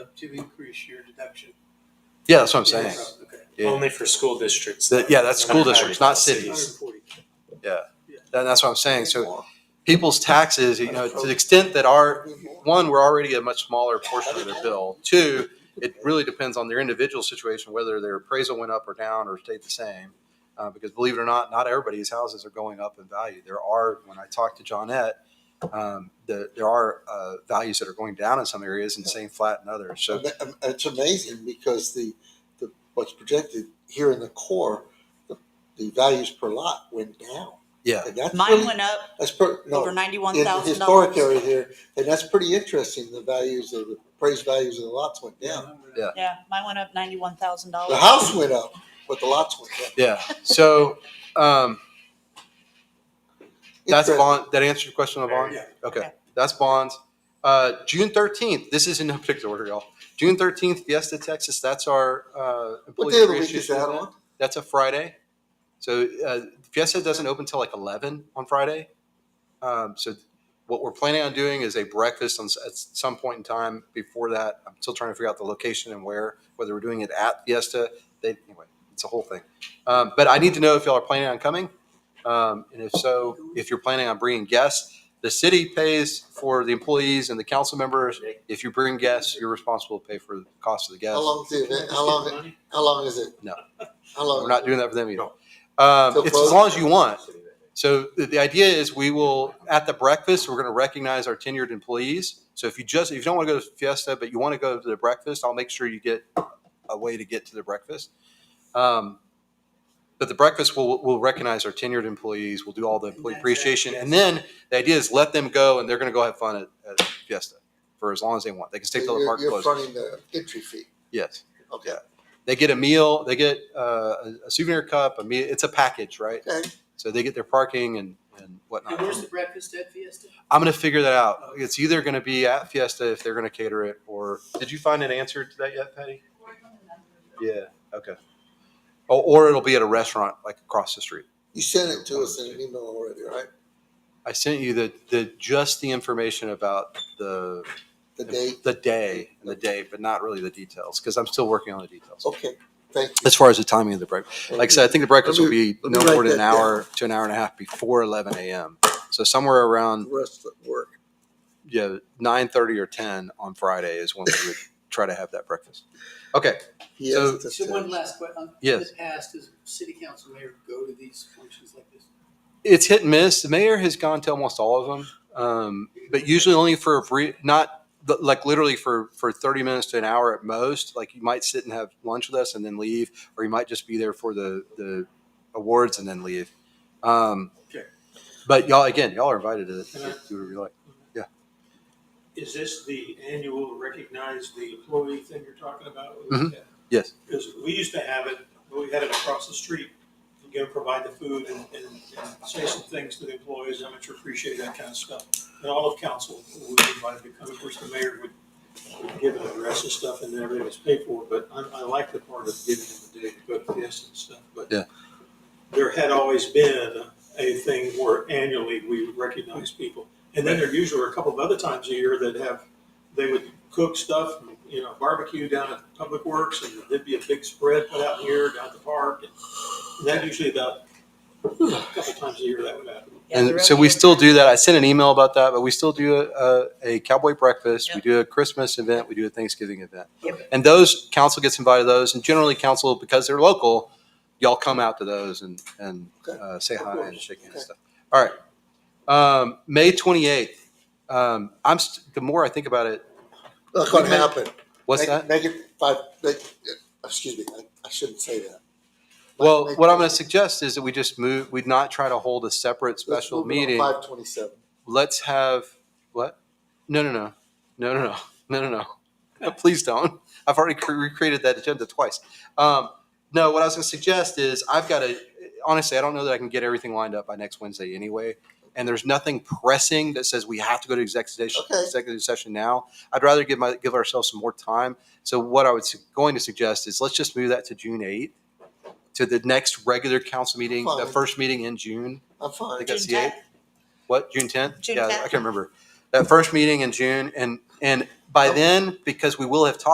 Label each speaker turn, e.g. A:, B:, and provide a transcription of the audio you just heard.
A: to increase your deduction.
B: Yeah, that's what I'm saying.
A: Okay.
B: Yeah.
C: Only for school districts.
B: That- yeah, that's school districts, not
A: Hundred
B: cities.
A: and forty.
B: That- that's what I'm saying. So people's taxes, you know, to the extent that our, one, we're already a much smaller portion of their bill. Two, it really depends on their individual situation, whether their appraisal went up or down or stayed the same. Uh, because believe it or not, not everybody's houses are going up in value. There are, when I talked to Johnette, um, the, there are, uh, values that are going down in some areas and staying flat in others. So,
D: Ama- am- um, It's amazing because the, the, what's projected here in the core, the, the values per lot went down.
B: yeah.
D: And that's
E: Mine
D: pretty,
E: went up
D: that's per, no,
E: over
D: in
E: ninety-one
D: the
E: thousand
D: historic
E: dollars.
D: area here, and that's pretty interesting, the values of, the appraised values of the lots went down.
B: Yeah.
E: Yeah, mine went up ninety-one thousand
D: The
E: dollars.
D: house went up, but the lots went down.
B: Yeah. So, um, that's
D: Interesting.
B: bond. That answers your question on bond?
A: Yeah.
B: Okay.
E: Yeah.
B: That's bonds. Uh, June thirteenth, this is in no particular order, y'all. June thirteenth, Fiesta, Texas, that's our, uh.
D: What
B: employee
D: day of the week
B: appreciation
D: is that
B: event.
D: on?
B: That's a Friday. So, uh, Fiesta doesn't open till like eleven on Friday. Um, so what we're planning on doing is a breakfast on, s- at some point in time before that. I'm still trying to figure out the location and where, whether we're doing it at Fiesta. They, anyway, it's a whole thing. Um, but I need to know if y'all are planning on coming. Um, and if so, if you're planning on bringing guests, the city pays for the employees and the council members. If you bring guests, you're responsible to pay for the cost of the guests.
D: How long is the event, how long, how long is it?
B: No.
D: How long?
B: We're not doing that for them either. Um,
D: So
B: it's as
D: both-
B: long as you want. So the, the idea is we will, at the breakfast, we're going to recognize our tenured employees. So if you just, if you don't want to go to Fiesta, but you want to go to the breakfast, I'll make sure you get a way to get to the breakfast. Um, but the breakfast will, will recognize our tenured employees. We'll do all the employee
A: that's it,
B: appreciation.
A: yes.
B: And then the idea is let them go and they're going to go have fun at, at Fiesta for as long as they want. They can stay till the
D: You're-
B: park
D: You're
B: closes.
D: fronting the entry fee,
B: Yes.
D: okay.
B: They get a meal, they get uh, a- a souvenir cup, a meal, it's a package, right?
D: Okay.
B: So they get their parking and, and whatnot.
A: And where's the breakfast at Fiesta?
B: I'm gonna figure that out. It's either gonna be at Fiesta if they're gonna cater it, or, did you find an answer to that yet, Patty? Yeah, okay. Or, or it'll be at a restaurant like across the street.
D: You sent it to us in an email already, right?
B: I sent you the, the, just the information about the.
D: The date,
B: The day, and the day, but not really the details, because I'm still working on the details.
D: okay, thank you.
B: As far as the timing of the break. Like I said, I think the breakfast will be
D: Let me-
B: no
D: let me
B: more
D: write
B: than an
D: that down.
B: hour to an hour and a half before eleven AM. So somewhere
D: The
B: around,
D: rest of the work.
B: yeah, nine thirty or ten on Friday is when we would try to have that breakfast. Okay,
D: He
B: So-
D: asked us
A: So
D: to-
A: one last question. In
B: Yes.
A: the past, does city council mayor go to these functions like this?
B: it's hit and miss. The mayor has gone to almost all of them. Um, but usually only for a brief, not like literally for, for thirty minutes to an hour at most. Like you might sit and have lunch with us and then leave, or you might just be there for the, the awards and then leave. Um,
A: Okay.
B: but y'all, again, y'all are invited to
F: Can I-
B: to do whatever you like.
F: Is this the annual recognize the employee thing you're talking about?
B: Mhm. Yes.
F: Because we used to have it, we had it across the street, you go provide the food and, and, and say some things to the employees, how much you appreciate that kind of stuff. And all of council would be invited to come, of course, the mayor would, would give an address and stuff and then everybody was paid for, but I, I like the part of giving them the day to go to this and stuff, but.
B: Yeah.
F: There had always been a thing where annually we would recognize people. And then there usually are a couple of other times a year that have, they would cook stuff, you know, barbecue down at Public Works, and there'd be a big spread put out here down at the park. And that usually about a couple times a year that would happen.
B: And so we still do that. I sent an email about that, but we still do a, a cowboy breakfast. We
E: Yep.
B: do a Christmas event. We do a Thanksgiving event.
E: Yep.
B: And those council gets invited to those, and generally council because they're local, y'all come out to those and and
D: Okay.
B: uh, say
D: Of
B: hi
D: course.
B: and shake hands and
D: Okay.
B: stuff. All right, um, May twenty eighth. Um, I'm st- the more I think about it,
D: Not gonna happen.
B: what's
D: Make-
B: that?
D: Make it five, make, uh, excuse me, I, I shouldn't say that.
B: Well,
D: Make-
B: what I'm going to suggest is that we just move. We'd not try to hold a separate
D: let's
B: special
D: move it on
B: meeting.
D: Five twenty-seven.
B: let's have what? No, no, no, no, no, no, no, no, no. Please don't. I've already cre- recreated that agenda twice. Um, no, what I was going to suggest is I've got to honestly, I don't know that I can get everything lined up by next Wednesday anyway. And there's nothing pressing that says we have to go to executive session,
D: Okay.
B: executive session now. I'd rather give my give ourselves some more time. So what I was going to suggest is let's just move that to June 8th to the next regular council meeting, the
D: Fine.
B: first meeting in June.
D: I'm
B: I
D: fine.
B: think that's the eighth. What, June tenth?
E: June
B: Yeah, I
E: 10th.
B: can't remember. That first meeting in June and, and by
D: Okay.
B: then, because we will have talked